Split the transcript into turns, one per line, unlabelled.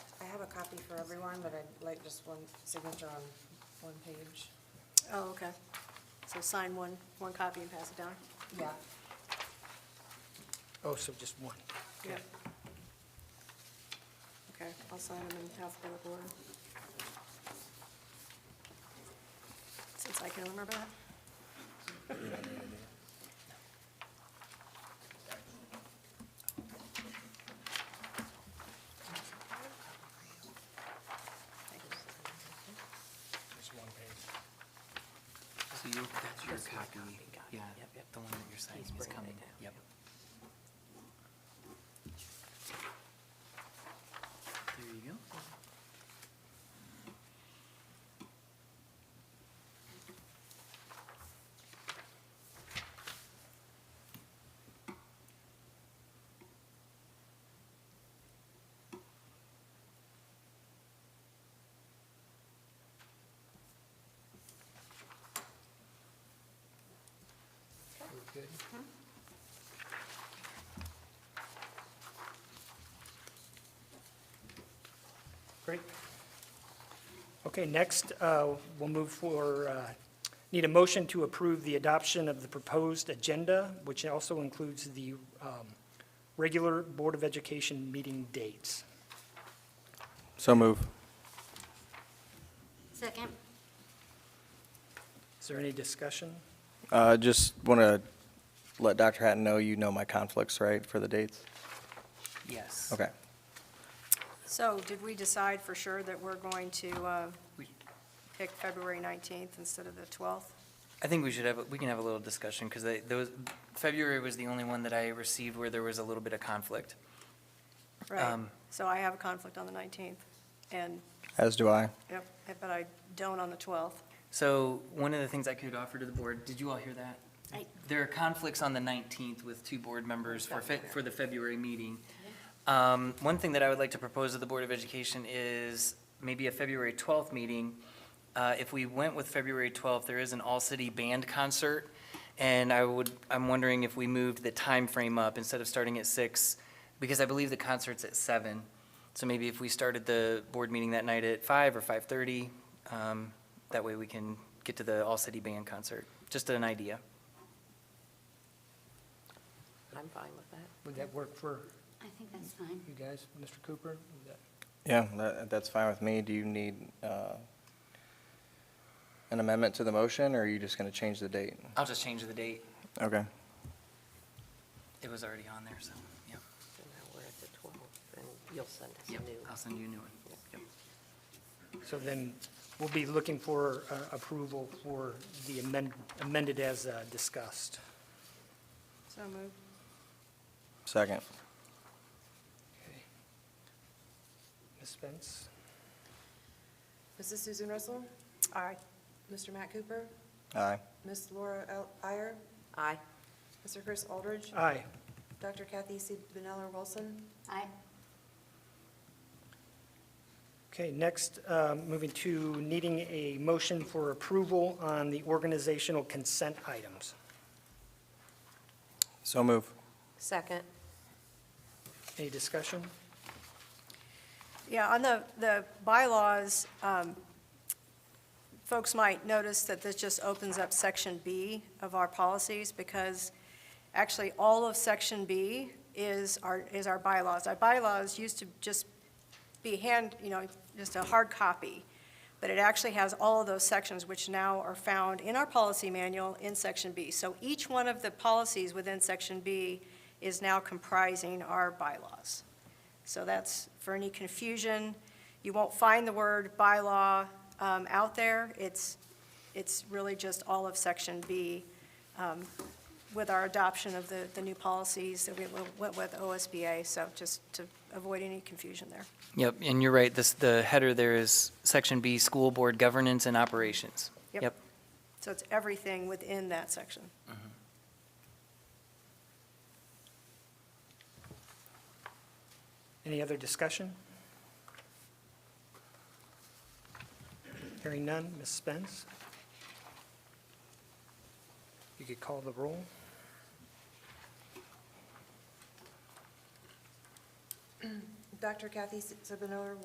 copy for everyone, but I'd like just one signature on one page.
Oh, okay. So sign one, one copy and pass it down?
Yeah.
Oh, so just one.
Yeah. Okay, I'll sign them in alphabetical order. Since I can remember that.
Just one page.
So you, that's your copy, yeah, the one that you're signing is coming, yep. There you go.
Good. Great. Okay, next, uh, we'll move for, uh, need a motion to approve the adoption of the proposed agenda, which also includes the um, regular Board of Education meeting dates.
So move.
Second.
Is there any discussion?
Uh, Just want to let Dr. Hatton know you know my conflicts, right, for the dates?
Yes.
Okay.
So did we decide for sure that we're going to uh,
We-
pick February 19th instead of the 12th?
I think we should have, a- we can have a little discussion, because those, February was the only one that I received where there was a little bit of conflict.
Right.
Um,
So I have a conflict on the 19th, and,
As do I.
yep, but I don't on the 12th.
So one of the things I could offer to the board, did you all hear that?
I-
There are conflicts on the 19th with two board members for, Fe- for the February meeting. Um, One thing that I would like to propose to the Board of Education is maybe a February 12th meeting. Uh, If we went with February 12th, there is an all-city band concert, and I would, I'm wondering if we moved the time frame up instead of starting at six, because I believe the concert's at seven. So maybe if we started the board meeting that night at five or 5:30, um, that way we can get to the all-city band concert. Just an idea.
I'm fine with that.
Would that work for
I think that's fine.
you guys, Mr. Cooper? Would that-
Yeah, that- that's fine with me. Do you need uh, an amendment to the motion, or are you just going to change the date?
I'll just change the date.
Okay.
It was already on there, so, yeah.
And now we're at the 12th, and you'll send us
Yep,
a new.
I'll send you a new one. Yep.
So then we'll be looking for uh, approval for the amend- amended as uh, discussed.
So moved.
Second.
Ms. Spence?
Mrs. Susan Russell?
Aye.
Mr. Matt Cooper?
Aye.
Miss Laura El- Iyer? Aye. Mr. Chris Aldridge?
Aye.
Dr. Kathy C. Benella Wilson?
Aye.
Okay, next, uh, moving to needing a motion for approval on the organizational consent items.
So move.
Second.
Any discussion?
Yeah, on the, the bylaws, um, folks might notice that this just opens up Section B of our policies, because actually, all of Section B is our, is our bylaws. Our bylaws used to just be hand, you know, just a hard copy, but it actually has all of those sections, which now are found in our policy manual in Section B. So each one of the policies within Section B is now comprising our bylaws. So that's, for any confusion, you won't find the word bylaw um, out there. It's, it's really just all of Section B um, with our adoption of the, the new policies that we went with OSBA, so just to avoid any confusion there.
Yep, and you're right, this, the header there is Section B, School Board Governance and Operations.
Yep.
Yep.
So it's everything within that section.
Any other discussion? Hearing none, Ms. Spence? You could call the roll.
Dr. Kathy Sabinower